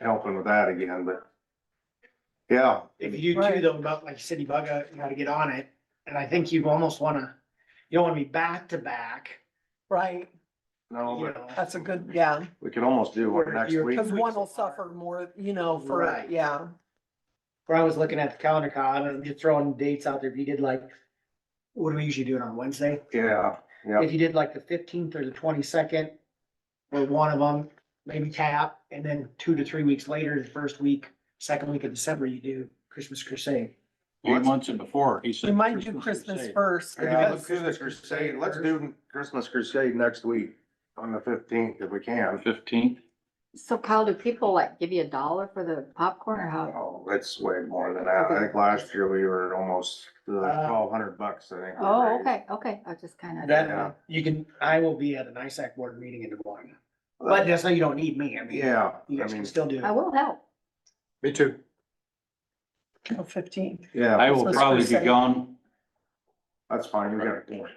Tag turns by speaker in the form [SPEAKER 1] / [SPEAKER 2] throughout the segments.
[SPEAKER 1] helping with that again, but. Yeah,
[SPEAKER 2] If you do
[SPEAKER 3] Right.
[SPEAKER 2] though, about like city bug out, you gotta get on it, and I think you almost wanna, you don't wanna be back to back,
[SPEAKER 3] right?
[SPEAKER 1] no,
[SPEAKER 2] you
[SPEAKER 1] but
[SPEAKER 2] know.
[SPEAKER 3] That's a good, yeah,
[SPEAKER 1] we could almost do one next
[SPEAKER 2] You're-
[SPEAKER 1] week.
[SPEAKER 3] because one will suffer more, you know, for,
[SPEAKER 2] Right.
[SPEAKER 3] yeah,
[SPEAKER 2] Where I was looking at the calendar con and just throwing dates out there, if you did like, what do we usually do it on Wednesday?
[SPEAKER 1] Yeah, yeah,
[SPEAKER 2] If you did like the fifteenth or the twenty-second, or one of them, maybe tap, and then two to three weeks later, the first week, second week of December, you do Christmas crusade.
[SPEAKER 4] He mentioned before, he said.
[SPEAKER 3] we might do Christmas
[SPEAKER 4] Crusade.
[SPEAKER 3] first.
[SPEAKER 1] yeah,
[SPEAKER 3] because
[SPEAKER 1] let's do the crusade, let's do Christmas crusade next week on the fifteenth if we can.
[SPEAKER 4] Fifteenth,
[SPEAKER 5] So Kyle, do people like give you a dollar for the popcorn or how?
[SPEAKER 1] Oh, it's way more than that. I think last year we were almost uh, twelve hundred bucks, I think. we
[SPEAKER 5] Oh,
[SPEAKER 1] raised.
[SPEAKER 5] okay, okay, I just kind of.
[SPEAKER 1] Yeah.
[SPEAKER 2] That, you can, I will be at an ISAC board meeting in Des Moines, but that's not, you don't need me, I mean.
[SPEAKER 1] Yeah, I
[SPEAKER 2] You guys can
[SPEAKER 1] mean,
[SPEAKER 2] still do.
[SPEAKER 5] I will help.
[SPEAKER 1] me too.
[SPEAKER 3] Fifteenth,
[SPEAKER 4] I
[SPEAKER 1] Yeah,
[SPEAKER 4] will probably be
[SPEAKER 3] Crusade.
[SPEAKER 4] gone.
[SPEAKER 1] that's fine, we got four.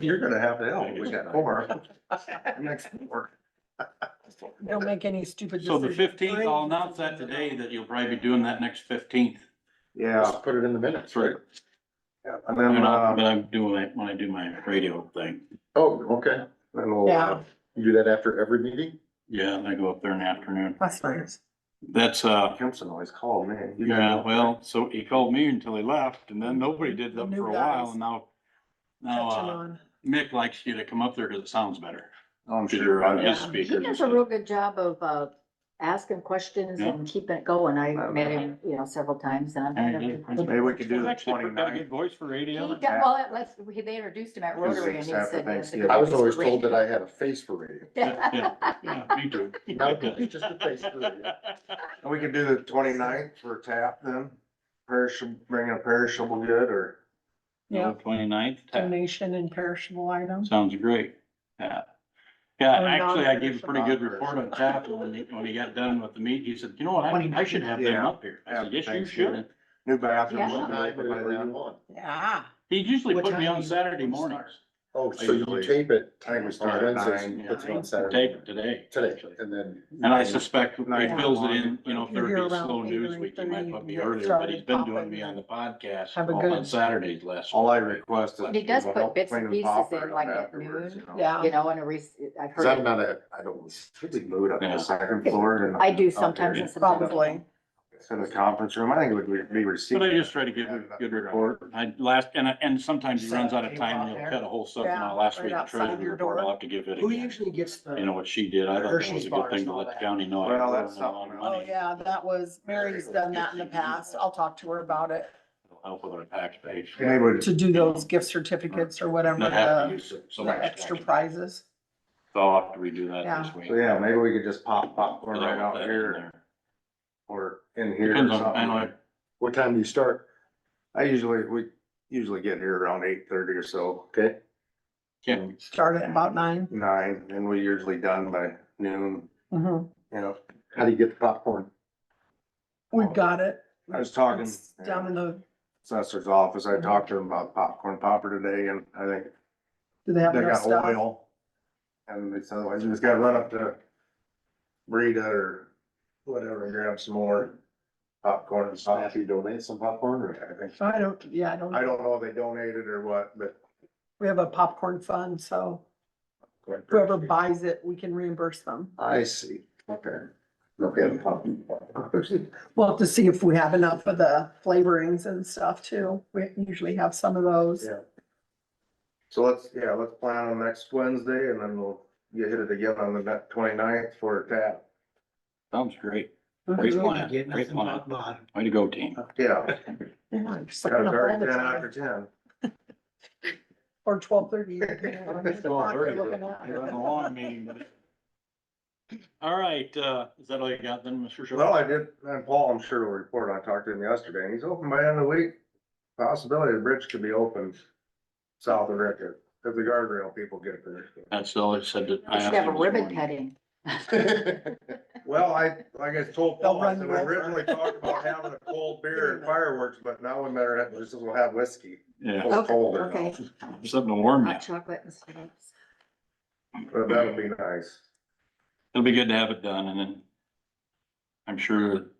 [SPEAKER 1] You're gonna have to help, we got four. Next four.
[SPEAKER 3] don't make any stupid
[SPEAKER 4] So the
[SPEAKER 3] decisions.
[SPEAKER 4] fifteenth, I'll announce that today, that you'll probably be doing that next fifteenth.
[SPEAKER 1] Yeah,
[SPEAKER 4] put it in the minutes, right?
[SPEAKER 1] yeah, and
[SPEAKER 4] But
[SPEAKER 1] then, uh,
[SPEAKER 4] I'm doing it when I do my radio thing.
[SPEAKER 6] Oh, okay.
[SPEAKER 1] then we'll, uh,
[SPEAKER 6] You do that after every meeting?
[SPEAKER 4] Yeah, and I go up there in the afternoon.
[SPEAKER 3] That's nice.
[SPEAKER 4] That's, uh,
[SPEAKER 1] Kempson always called me. You guys
[SPEAKER 4] yeah,
[SPEAKER 1] know.
[SPEAKER 4] well, so he called me until he left and then nobody did that
[SPEAKER 3] New
[SPEAKER 4] for a
[SPEAKER 3] guys.
[SPEAKER 4] while and now, now,
[SPEAKER 3] Catching
[SPEAKER 4] uh,
[SPEAKER 3] on.
[SPEAKER 4] Mick likes you to come up there because it sounds better.
[SPEAKER 1] Oh, I'm
[SPEAKER 4] Because you're
[SPEAKER 1] sure.
[SPEAKER 4] on
[SPEAKER 1] I-
[SPEAKER 4] his
[SPEAKER 3] Yeah.
[SPEAKER 5] He
[SPEAKER 4] speaker.
[SPEAKER 5] does a real good job of, uh, asking questions and keeping it going. I met him, you know, several times and I've had him.
[SPEAKER 1] Maybe we could do the
[SPEAKER 4] Actually, pretty got a
[SPEAKER 1] 29th.
[SPEAKER 4] good voice for
[SPEAKER 5] He
[SPEAKER 4] radio.
[SPEAKER 5] got, well, it was, he- they introduced him at
[SPEAKER 1] Because
[SPEAKER 5] Rotary and
[SPEAKER 1] it's
[SPEAKER 5] he
[SPEAKER 1] after
[SPEAKER 5] said. he has a
[SPEAKER 1] Thanksgiving.
[SPEAKER 5] good
[SPEAKER 6] I was always
[SPEAKER 5] voice
[SPEAKER 6] told
[SPEAKER 5] for
[SPEAKER 6] that I had a face for radio.
[SPEAKER 4] Yeah, yeah,
[SPEAKER 5] radio.
[SPEAKER 4] yeah, me too.
[SPEAKER 6] Not a voice, just a face for radio.
[SPEAKER 1] And We could do the 29th for tap then, perishable, bring a perishable good or,
[SPEAKER 3] Yeah,
[SPEAKER 4] Twenty-ninth,
[SPEAKER 3] donation and perishable items.
[SPEAKER 4] sounds great, yeah. Yeah,
[SPEAKER 3] Or
[SPEAKER 4] actually, I gave a pretty good
[SPEAKER 1] non-perishable.
[SPEAKER 4] report on tap, and when he, when he got done with the meet, he said, you know what, I, I should have them
[SPEAKER 1] Yeah.
[SPEAKER 4] up here. I said, yes, you
[SPEAKER 1] Thanksgiving.
[SPEAKER 4] should.
[SPEAKER 1] new bathrooms.
[SPEAKER 5] Yeah.
[SPEAKER 6] What time, whatever you
[SPEAKER 1] I
[SPEAKER 6] want.
[SPEAKER 3] Yeah.
[SPEAKER 4] He usually
[SPEAKER 2] What
[SPEAKER 4] put me
[SPEAKER 2] time
[SPEAKER 4] on
[SPEAKER 2] do you
[SPEAKER 4] Saturday
[SPEAKER 2] start?
[SPEAKER 4] mornings.
[SPEAKER 6] Oh, so you
[SPEAKER 1] Usually-
[SPEAKER 6] tape it
[SPEAKER 1] think we
[SPEAKER 6] on
[SPEAKER 1] started at
[SPEAKER 6] Wednesday,
[SPEAKER 1] nine.
[SPEAKER 4] Yeah,
[SPEAKER 6] puts it on
[SPEAKER 4] Tape
[SPEAKER 6] Saturday,
[SPEAKER 4] it today,
[SPEAKER 6] today, and then.
[SPEAKER 4] and I suspect he
[SPEAKER 1] Nine.
[SPEAKER 4] fills it in, you know, if
[SPEAKER 3] You're
[SPEAKER 4] there'd be a
[SPEAKER 3] around
[SPEAKER 4] slow
[SPEAKER 3] eight
[SPEAKER 4] news
[SPEAKER 3] or
[SPEAKER 4] week, he
[SPEAKER 3] 8:30,
[SPEAKER 4] might
[SPEAKER 3] you
[SPEAKER 4] put me
[SPEAKER 3] get
[SPEAKER 4] earlier, but he's
[SPEAKER 3] started
[SPEAKER 4] been
[SPEAKER 3] popping
[SPEAKER 4] doing me
[SPEAKER 3] and
[SPEAKER 4] on the podcast
[SPEAKER 3] have a
[SPEAKER 4] on
[SPEAKER 3] good-
[SPEAKER 4] Saturdays last.
[SPEAKER 1] All I
[SPEAKER 4] week.
[SPEAKER 1] request is.
[SPEAKER 5] He does
[SPEAKER 1] people
[SPEAKER 5] put
[SPEAKER 1] help
[SPEAKER 5] bits and
[SPEAKER 1] clean the
[SPEAKER 5] pieces
[SPEAKER 1] popper
[SPEAKER 5] in, like, at
[SPEAKER 1] afterwards,
[SPEAKER 5] noon.
[SPEAKER 1] you know.
[SPEAKER 3] Yeah.
[SPEAKER 5] You know, and a rec I've
[SPEAKER 6] Cause I'm
[SPEAKER 5] heard,
[SPEAKER 6] not a, I don't,
[SPEAKER 1] Really mood up
[SPEAKER 4] Yeah.
[SPEAKER 1] the second floor and.
[SPEAKER 5] I do
[SPEAKER 1] out there.
[SPEAKER 5] sometimes and sometimes. I don't.
[SPEAKER 3] Probably.
[SPEAKER 1] It's In the conference room, I think it would be received.
[SPEAKER 4] But I just try to give a good report. I last, and, I- and sometimes he runs out of time and he'll cut a whole something
[SPEAKER 3] Yeah,
[SPEAKER 4] out last
[SPEAKER 3] right
[SPEAKER 4] week. The
[SPEAKER 3] outside
[SPEAKER 4] treasury
[SPEAKER 3] your
[SPEAKER 4] report, I'll
[SPEAKER 3] door.
[SPEAKER 4] have to give it
[SPEAKER 2] Who
[SPEAKER 4] again.
[SPEAKER 2] usually gets the?
[SPEAKER 4] You know what she did? I thought that was
[SPEAKER 2] Hershey's
[SPEAKER 4] a
[SPEAKER 2] bars
[SPEAKER 4] good thing
[SPEAKER 2] and
[SPEAKER 4] to
[SPEAKER 2] all
[SPEAKER 4] let the
[SPEAKER 2] that.
[SPEAKER 4] county know. I
[SPEAKER 1] Well,
[SPEAKER 4] owe
[SPEAKER 1] that's
[SPEAKER 4] them a lot of
[SPEAKER 1] something
[SPEAKER 3] Oh,
[SPEAKER 4] money.
[SPEAKER 3] yeah, that was, Mary's done that in the past. I'll talk to her about it,
[SPEAKER 4] It'll Help with our tax base.
[SPEAKER 1] They would,
[SPEAKER 3] to do those gift certificates or whatever,
[SPEAKER 4] Not have to
[SPEAKER 3] the,
[SPEAKER 4] use it so
[SPEAKER 3] the
[SPEAKER 4] much.
[SPEAKER 3] extra prizes.
[SPEAKER 4] So I'll have to redo that this week.
[SPEAKER 1] so yeah, maybe we could just pop
[SPEAKER 4] Put
[SPEAKER 1] popcorn right
[SPEAKER 4] that
[SPEAKER 1] out
[SPEAKER 4] in
[SPEAKER 1] here
[SPEAKER 4] there.
[SPEAKER 1] or in here or
[SPEAKER 4] Depends on, I know,
[SPEAKER 1] something.
[SPEAKER 6] what time do you start?
[SPEAKER 1] I usually, we usually get here around eight thirty or so,
[SPEAKER 6] Okay,
[SPEAKER 4] Kim,
[SPEAKER 3] Start at about 9
[SPEAKER 1] nine, and we're usually done by noon,
[SPEAKER 3] Mm-hmm.
[SPEAKER 1] you know.
[SPEAKER 6] how do you get the popcorn?
[SPEAKER 3] We've got it.
[SPEAKER 1] I was talking.
[SPEAKER 3] It's Down in the,
[SPEAKER 1] assessor's office. I talked to him about popcorn popper today and I think
[SPEAKER 3] do they have
[SPEAKER 1] they
[SPEAKER 3] enough
[SPEAKER 1] got
[SPEAKER 3] stuff?
[SPEAKER 1] oil. And it's otherwise you just gotta run up to Rita or whatever and grab some more popcorn and stuff.
[SPEAKER 6] you donate some popcorn
[SPEAKER 1] I think,
[SPEAKER 3] I don't, yeah, I don't,
[SPEAKER 1] I don't know if they donated or what, but.
[SPEAKER 3] we have a popcorn fund, so whoever buys it, we can reimburse them.
[SPEAKER 6] I see, okay. Okay, popcorn.
[SPEAKER 3] We'll have to see if we have enough of the flavorings and stuff too. We usually have some of those.
[SPEAKER 1] Yeah. So let's, yeah, let's plan on next Wednesday and then we'll get hit it again on the twenty-ninth for tap.
[SPEAKER 4] sounds great. Great
[SPEAKER 3] Mhm.
[SPEAKER 4] plan,
[SPEAKER 2] Get
[SPEAKER 4] great
[SPEAKER 2] nothing
[SPEAKER 4] plan.
[SPEAKER 2] but bottom.
[SPEAKER 4] Way to go, team.
[SPEAKER 1] Yeah.
[SPEAKER 3] Yeah, I'm just
[SPEAKER 1] Got
[SPEAKER 3] looking
[SPEAKER 1] it
[SPEAKER 3] up all
[SPEAKER 1] already
[SPEAKER 3] the
[SPEAKER 1] ten
[SPEAKER 3] time.
[SPEAKER 1] after ten.
[SPEAKER 3] Or twelve thirty. Well,
[SPEAKER 4] long meeting. All right, uh, is that all you got then, Mr. Shaw?
[SPEAKER 1] Well, I did, and Paul, I'm sure will report, I talked to him yesterday, and he's open by the end of the week. Possibility the bridge could be open south of Rickett, if the guardrail people get there.
[SPEAKER 4] That's all I said that I
[SPEAKER 5] We
[SPEAKER 4] asked.
[SPEAKER 5] should have a
[SPEAKER 4] him this
[SPEAKER 5] ribbon
[SPEAKER 4] morning.
[SPEAKER 5] cutting.
[SPEAKER 1] Well, I, like I told
[SPEAKER 3] They'll
[SPEAKER 1] Paul, I
[SPEAKER 3] run
[SPEAKER 1] said,
[SPEAKER 3] you
[SPEAKER 1] we
[SPEAKER 3] over."
[SPEAKER 1] originally talked about having a cold beer and fireworks, but now we better have, just as well have whiskey.
[SPEAKER 4] Yeah,
[SPEAKER 1] It's
[SPEAKER 5] Okay,
[SPEAKER 1] cold
[SPEAKER 5] okay.
[SPEAKER 1] enough,
[SPEAKER 4] something to warm you.
[SPEAKER 5] Hot chocolate and syrups.
[SPEAKER 1] but that'll be nice.
[SPEAKER 4] It'll be good to have it done and then I'm sure